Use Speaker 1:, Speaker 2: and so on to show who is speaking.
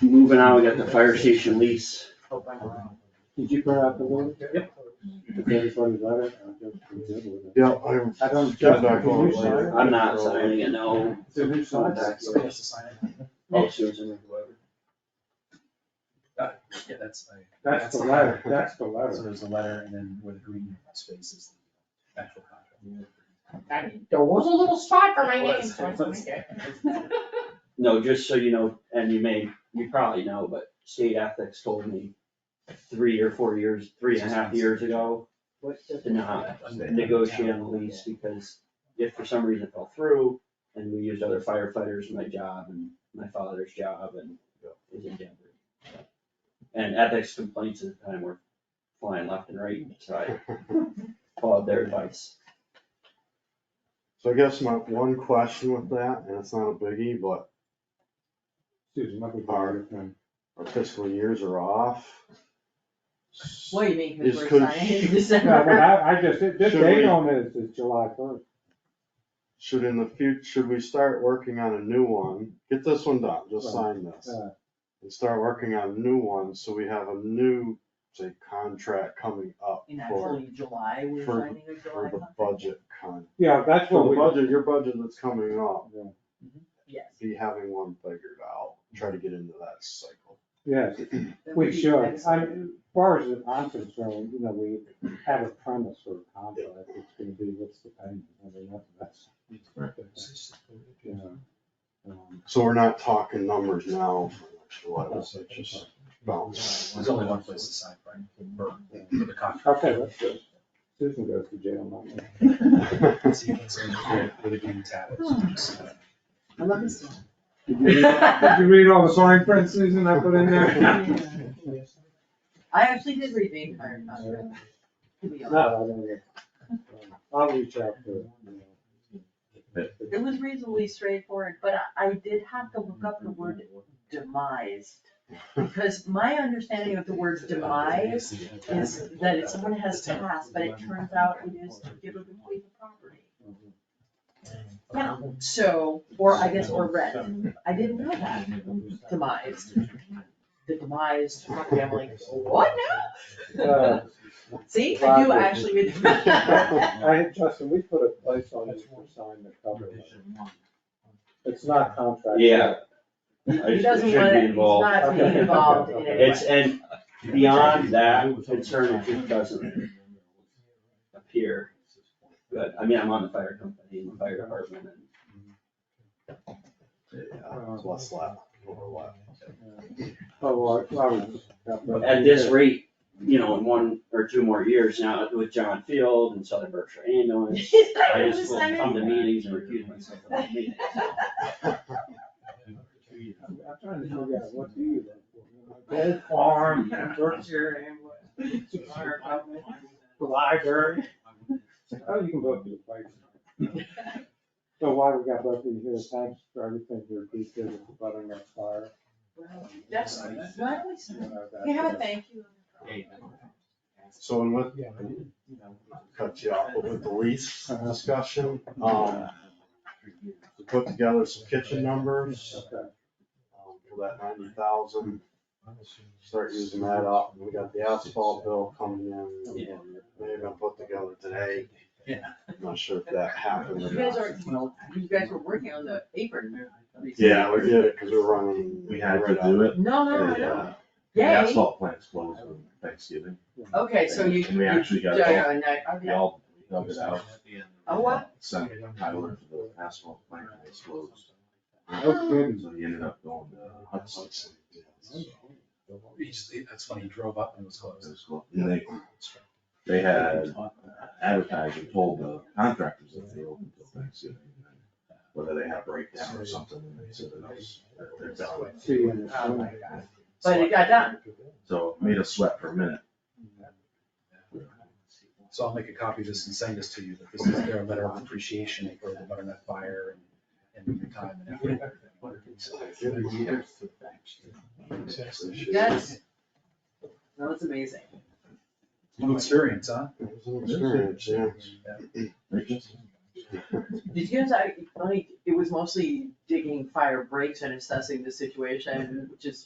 Speaker 1: Moving on, we got the fire station lease.
Speaker 2: Did you print out the one?
Speaker 1: Yep.
Speaker 2: The thirty-four letter? I
Speaker 3: Yeah, I'm,
Speaker 2: don't.
Speaker 3: Just not
Speaker 2: Can you
Speaker 3: going.
Speaker 2: sign it?
Speaker 1: I'm not signing it, no.
Speaker 2: It's a new sign.
Speaker 1: Somebody Oh, Susan.
Speaker 4: Yeah, that's, I.
Speaker 2: That's the letter, that's the letter.
Speaker 4: there's a letter and then with green spaces, the actual
Speaker 5: There was a little spot for my
Speaker 4: It
Speaker 5: name,
Speaker 4: was,
Speaker 5: so I
Speaker 4: it was.
Speaker 5: signed it.
Speaker 1: No, just so you know, and you may, you probably know, but state ethics told me three or four years, three and a half years ago, to not negotiate on the lease because if for some reason it fell through and we used other firefighters, my job and my father's job and is in jeopardy. And ethics complaints at the time were flying left and right, so I followed their advice.
Speaker 3: so I guess my one question with that, and it's not a biggie, but
Speaker 2: Susan, let me borrow it. then.
Speaker 3: our fiscal years are off.
Speaker 6: What do you mean,
Speaker 3: Is
Speaker 6: cause we're
Speaker 3: could-
Speaker 6: signing
Speaker 2: No, but
Speaker 6: in December?
Speaker 2: I, I just, this
Speaker 3: Should
Speaker 2: date
Speaker 3: we-
Speaker 2: on this is July first.
Speaker 3: Should in the future, should we start working on a new one? Get this one done, just sign this.
Speaker 2: Right.
Speaker 3: And start working on a new one, so we have a new, say, contract coming up
Speaker 6: And
Speaker 3: for,
Speaker 6: actually, July, we're
Speaker 3: for-
Speaker 6: signing a
Speaker 3: for
Speaker 6: July
Speaker 3: the
Speaker 6: contract?
Speaker 3: budget con.
Speaker 2: Yeah, that's
Speaker 3: For
Speaker 2: what
Speaker 3: the
Speaker 2: we.
Speaker 3: budget, your budget that's coming up,
Speaker 6: Yes.
Speaker 3: be having one figured out, try to get into that cycle.
Speaker 2: Yes,
Speaker 6: That would
Speaker 2: we
Speaker 6: be
Speaker 2: should. I,
Speaker 6: excellent.
Speaker 2: as far as I'm concerned, you know, we have a premise for a contract. It's gonna be what's the payment. I mean, that's, that's. Yeah. Um,
Speaker 3: So we're not talking numbers now for next July, let's say just bounce.
Speaker 4: There's only one place to sign, right, for, for the contract.
Speaker 2: Okay, that's good. Susan goes to jail, not me.
Speaker 4: So you can say with the green tab. it's just- uh,
Speaker 6: I love this one.
Speaker 2: Did you read- did you read all the fine print, Susan, I put in there?
Speaker 6: I actually did read the entire contract. to be honest.
Speaker 2: No, I didn't get it. I'll reach out to,
Speaker 6: It was reasonably straightforward, but I, I did have to look up the word demise, because my understanding of the word demise is that if someone has passed, but it turns out it is to give away the property. Yeah, so, or I guess, or rent, I didn't know that, demise, the demise, of my family, what
Speaker 2: uh,
Speaker 6: now? See, I do actually read. the-
Speaker 2: I had, Justin, we put a place on this for sign the cover. letter. It's not contract.
Speaker 1: Yeah.
Speaker 6: He doesn't want it, he's not being
Speaker 2: Okay.
Speaker 6: involved in it.
Speaker 1: It's, and beyond that concern, it just doesn't appear good. I mean, I'm on the fire company, and the fire department, and
Speaker 3: Yeah, it's less lap, overlap.
Speaker 2: Oh, well, I- I was-
Speaker 1: But at this rate, you know, in one or two more years now with John Field and Southern Berkshire Ambulance, I just will come to meetings and recuse myself from all meetings.
Speaker 2: I'm I'm trying to figure out, what do you? look for? Gold farm, Berkshire Ambulance, fire company, the library.
Speaker 4: Um,
Speaker 2: Oh, you can both be a place. So why we got both of you here, thanks for everything you're doing for buttering that fire.
Speaker 6: Well, That's, why don't we,
Speaker 2: You
Speaker 6: sign-
Speaker 2: know, that-
Speaker 6: we have a thank you.
Speaker 3: So and with, cut you off, but with the lease discussion, um, we put together some kitchen numbers
Speaker 2: Okay.
Speaker 3: um, for that ninety thousand, start using that up. We got the asphalt bill coming in, they're gonna put together today.
Speaker 4: Yeah.
Speaker 3: I'm Not sure if that happened
Speaker 6: You
Speaker 3: or
Speaker 6: guys
Speaker 3: not.
Speaker 6: are, you guys were working on the apron. recently.
Speaker 3: Yeah, we did it, cause we we're running.
Speaker 7: We had to do it.
Speaker 6: No, no,
Speaker 7: The,
Speaker 6: no,
Speaker 7: uh, the
Speaker 6: yay,
Speaker 7: Asphalt plant's closed on Thanksgiving.
Speaker 6: okay, so you.
Speaker 7: And we actually got
Speaker 6: Yeah,
Speaker 7: all-
Speaker 6: yeah, and I-
Speaker 7: We
Speaker 6: okay.
Speaker 7: all dug it out.
Speaker 6: Oh, what?
Speaker 7: Sent Tyler to the asphalt plant and it's closed.
Speaker 2: Oh, goodness.
Speaker 7: So he ended up going to Hudson.
Speaker 4: He just- that's when he drove up and it was
Speaker 7: It
Speaker 4: closed.
Speaker 7: was closed. And they,
Speaker 3: Uh,
Speaker 7: they had advertised and told the contractors that they opened till Thanksgiving. Whether they had a breakdown or something, and they said that was, that they're done.
Speaker 2: See you in the
Speaker 6: Oh,
Speaker 2: summer.
Speaker 6: my God. But it got done.
Speaker 7: So it made us sweat for a minute.
Speaker 4: So I'll make a copy of this and send this to you, that this is their letter of appreciation for the butternut fire and, and the time and effort.
Speaker 6: Yes. That was amazing.
Speaker 4: New experience, huh?
Speaker 3: It was an experience, yeah.
Speaker 7: They just-
Speaker 6: Did you guys, I, like, it was mostly digging fire breaks and assessing the situation, which is